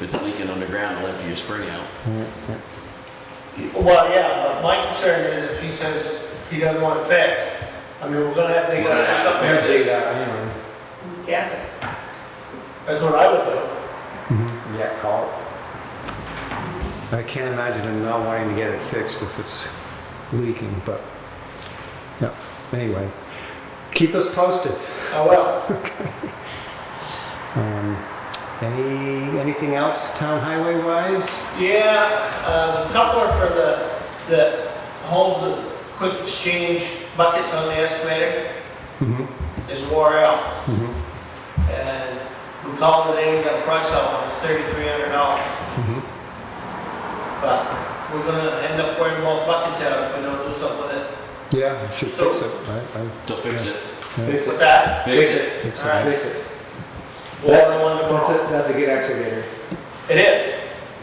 If it's leaking underground, it'll empty your spring out. Well, yeah, but my concern is if he says he doesn't want it fixed, I mean, we're gonna have to dig it We're gonna up or have to something. fix Say that, anyway. Yeah, That's what I would do. Yeah, call it. I can't imagine him not wanting to get it fixed if it's leaking, but, yeah, anyway. Keep us posted. I will. Um, Any, anything else town highway wise? Yeah, uh, the coupler for the, that holds the quick exchange buckets on the excavator Mhm, is wore out. mhm, Mm-hmm. And we called today and got a price on it, it's thirty-three hundred dollars. Mm-hmm. mhm. But we're gonna end up wearing both buckets out if we don't do something with it. Yeah, we should fix it, right? I- They'll fix it. yeah, With that, Fix it. fix All right. it. Fix it. we'll order one That's a, tomorrow. that's a good excavator. It is.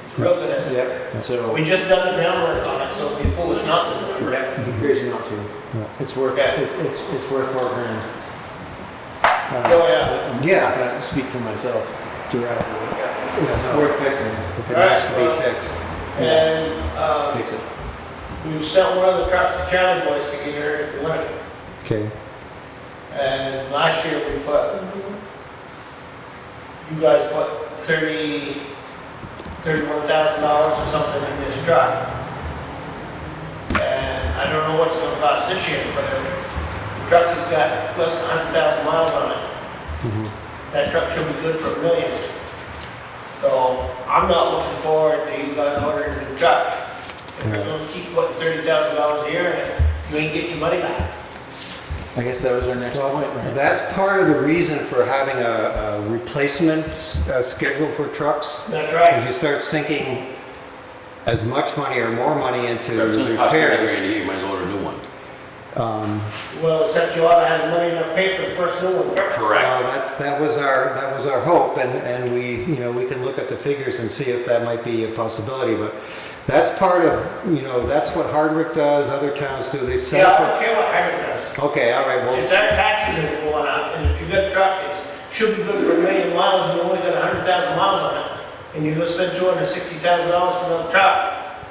It's real good, isn't it? Yep. So, We just done the groundwork on it, so it'd be foolish not to do it. yep, here's your not to. Yeah. It's worth, Okay. it- Mm-hmm. it's, it's worth four grand. Oh, yeah. uh, Yeah, I can speak for myself directly. Yeah. It's Yeah. worth fixing. if it has to All be right, fixed. And, uh, Fix it. we sent one of the trucks to Challenge Boys to get here if we wanted. Okay, And last year we put, you guys put thirty, thirty-one thousand dollars or something in this truck. And I don't know what's gonna cost this year, but if the truck has got less than hundred thousand miles on it, mhm, that truck should be good for a million. So I'm not looking forward to you guys ordering a new truck. If you're gonna keep putting thirty thousand dollars a year in it, you ain't getting your money back. I guess that was our next point, right? that's part of the reason for having a, a replacement s- uh, schedule for trucks. That's If right. you start sinking as much money or more money into If it's gonna cost you a grand repairs, a year, you might as well order a new one. um, Well, except you ought to have the money enough to pay for the first new one first. well, that's, that was our, that was our hope, and, and we, you know, we can look at the figures and see if that might be a possibility, but that's part of, you know, that's what Hardwick does, other towns do, they set Yeah, I don't up. care what Hyman does. Okay, all right, If well, that taxes are going up, and if you got a truck, it should be good for a million miles, and you only got a hundred thousand miles on it, and you're gonna spend two hundred sixty thousand dollars for another truck,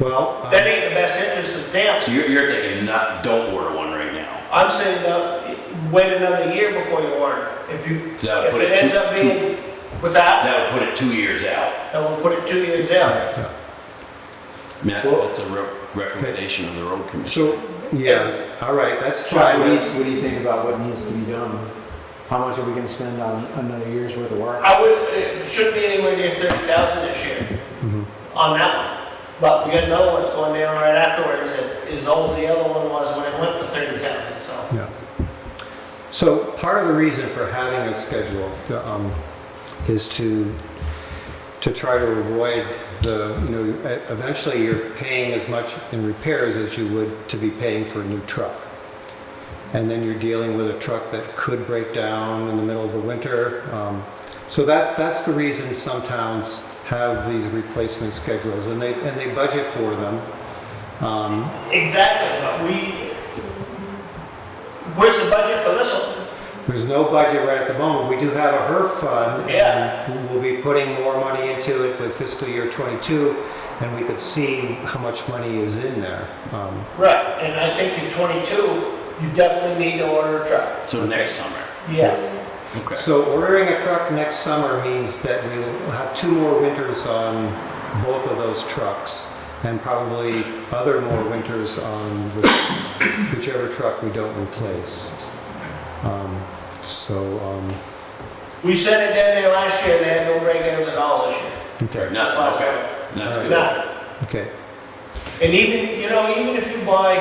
well, that uh, ain't in the best interest of the town. So you're, you're thinking enough, don't order one right now. I'm saying, uh, wait another year before you order. If you, That would if put it it ends two- up being without, That would put it two years out. then we'll put it two years out. I mean, that's, that's a re- recommendation of the road commission. so, yes, all right, that's Sean, what do, you, fine, what do you think about what needs to be done? How much are we gonna spend on another year's worth of work? I would, it shouldn't be anywhere near thirty thousand this year Mm-hmm. on that one. But we got another one that's going down right afterwards that is old as the other one was when it went for thirty thousand, so. yeah. So part of the reason for having a schedule, um, is to, to try to avoid the, you know, e- eventually you're paying as much in repairs as you would to be paying for a new truck. And then you're dealing with a truck that could break down in the middle of the winter. Um, So that, that's the reason some towns have these replacement schedules and they, and they budget for them. Um, Exactly, but we, where's the budget for this one? There's no budget right at the moment. We do have a HERF fund. Yeah. and We'll be putting more money into it with fiscal year '22, and we could see how much money is in there. Um, Right, and I think in twenty-two, you definitely need to order a truck. So next summer. Yes. Okay. So ordering a truck next summer means that we'll have two more winters on both of those trucks, and probably other more winters on the- whichever truck we don't replace. Um, So, um, We sent it down there last year, they had no breakdowns at all this year. okay, No, That's why it's okay. better. That's All right. good. None. okay. And even, you know, even if you buy,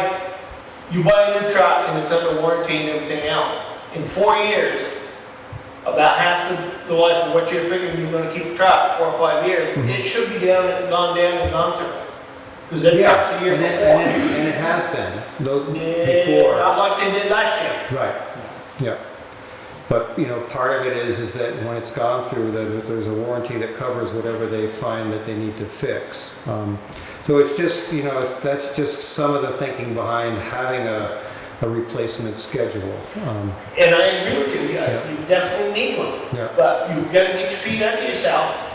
you buy a new truck and it's under warranty and everything else, in four years, about half the, the life of what you're figuring you're gonna keep a truck, four or five years, Mm-hmm. it should be down, and gone down and gone through. Cause that Yeah, truck's a year and it- before. And it, and it has been, though, Yeah, before, Not like they did last year. right, yeah. But, you know, part of it is, is that when it's gone through, that that there's a warranty that covers whatever they find that they need to fix. Um, So it's just, you know, that's just some of the thinking behind having a, a replacement schedule. Um, And I agree with you, you Yeah. you definitely need one. Yeah. But you gotta get your feet under yourself